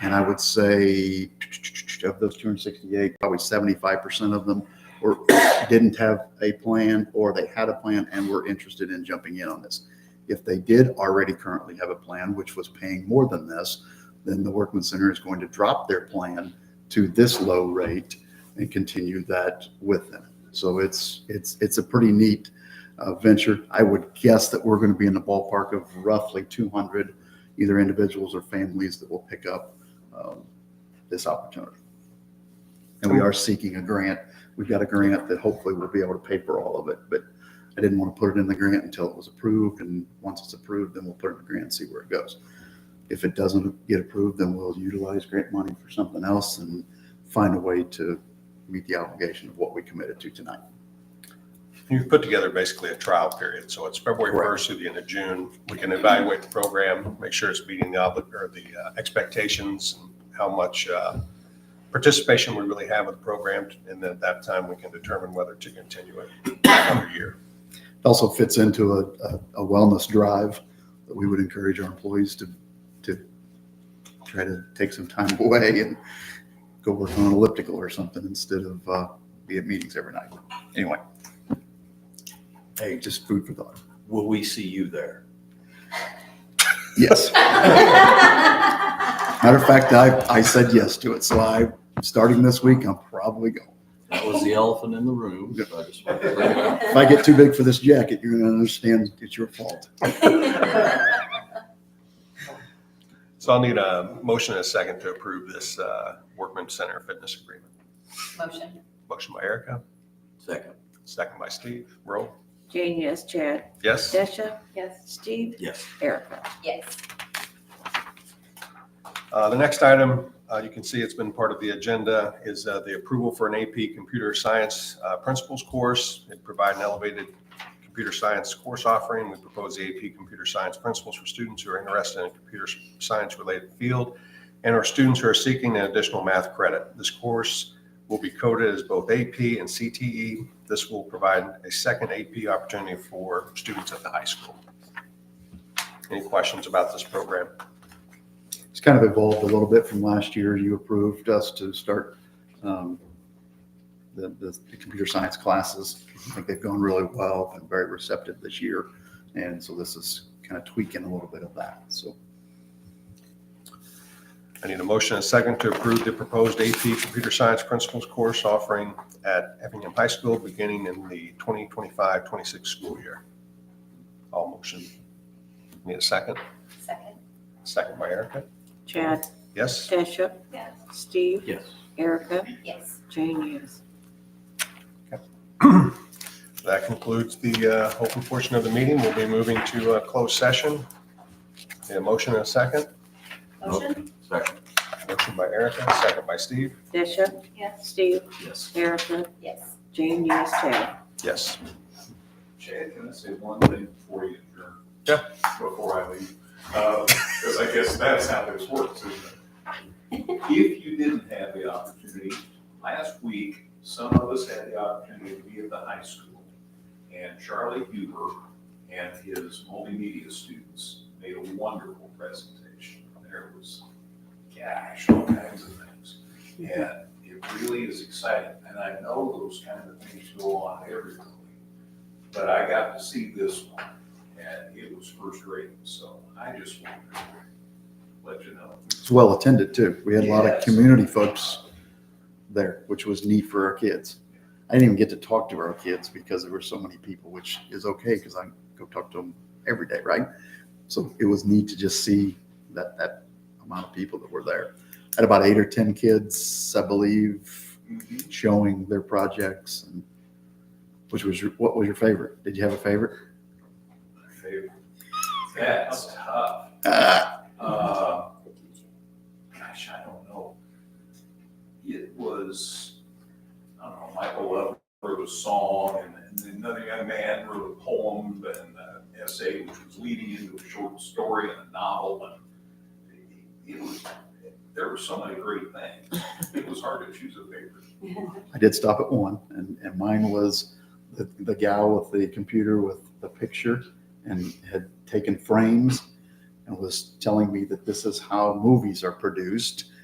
And I would say of those 268, probably 75% of them were, didn't have a plan or they had a plan and were interested in jumping in on this. If they did already currently have a plan, which was paying more than this, then the Workman Center is going to drop their plan to this low rate and continue that with them. So it's, it's, it's a pretty neat uh, venture. I would guess that we're going to be in the ballpark of roughly 200 either individuals or families that will pick up um, this opportunity. And we are seeking a grant. We've got a grant that hopefully we'll be able to pay for all of it, but I didn't want to put it in the grant until it was approved. And once it's approved, then we'll put it in the grant and see where it goes. If it doesn't get approved, then we'll utilize grant money for something else and find a way to meet the obligation of what we committed to tonight. You've put together basically a trial period, so it's February Correct. first through the end of June. We can evaluate the program, make sure it's meeting the obli, or the uh, expectations, and how much uh, participation we really have with the program, and then at that time, we can determine whether to continue it another year. It also fits into a, a- a wellness drive that we would encourage our employees to, to try to take some time away and go work on an elliptical or something instead of, uh, be at meetings every night. Anyway. Hey, just food for thought. Will we see you there? Yes. Matter of fact, I, I said yes to it. So I, starting this week, I'm probably going. That was the elephant in the room. so I just wanted to bring it up. If I get too big for this jacket, you're gonna understand it's your fault. So I'll need a motion and a second to approve this uh, Workman Center Fitness Agreement. Motion. Motion by Erica, Second, second by Steve. Roll. Jane, yes. Chad, Yes? Desha, Yes. Steve, yes. Erica. Yes. Uh, The next item, uh, you can see it's been part of the agenda, is uh, the approval for an AP Computer Science uh, Principles course. It provide an elevated computer science course offering. We propose the AP Computer Science Principles for students who are interested in a computer science-related field and our students who are seeking an additional math credit. This course will be coded as both AP and CTE. This will provide a second AP opportunity for students at the high school. Any questions about this program? It's kind of evolved a little bit from last year. You approved us to start um, the, the the computer science classes. I think they've gone really well and very receptive this year. And so this is kind of tweaking a little bit of that. So I need a motion and a second to approve the proposed AP Computer Science Principles course offering at Effingham High School beginning in the 2025-26 school year. All motion. Need a second? Second. Second by Erica? Chad, Yes? Desha, Yes. Steve, Yes. Erica, Yes. Jane, yes. That concludes the uh, open portion of the meeting. We'll be moving to a closed session. Need a motion and a second? Motion. Second, Motion by Erica, second by Steve. Desha, Yes. Steve, yes. Erica, Yes. Jane, yes. Chad. Yes. Chad, can I say one thing before you adjourn? Yeah. Before I leave, because I guess that's how this works, isn't it? If you didn't have the opportunity, last week, some of us had the opportunity to be at the high school, and Charlie Huber and his multimedia students made a wonderful presentation. There was, gosh, all kinds of things. And it really is exciting, and I know those kind of things go on everywhere but I got to see this one, and it was first rate, so I just wanted to let you know. it's well attended too. We had a lot of Yes. community folks there, which was neat for our kids. I didn't even get to talk to our kids because there were so many people, which is okay because I go talk to them every day, right? So it was neat to just see that that amount of people that were there. Had about eight or ten kids, I believe, showing their projects and which was your, what was your favorite? Did you have a favorite? My favorite. That's tough. Ah, Uh, Gosh, I don't know. It was, I don't know, Michael Love wrote a song, and then another young man wrote a poem and an essay, which was leading into a short story and a novel, and it it was, there were so many great things. It was hard to choose a favorite. I did stop at one and, and mine was the, the gal with the computer with the picture and had taken frames. and and was telling me that this is how movies are produced.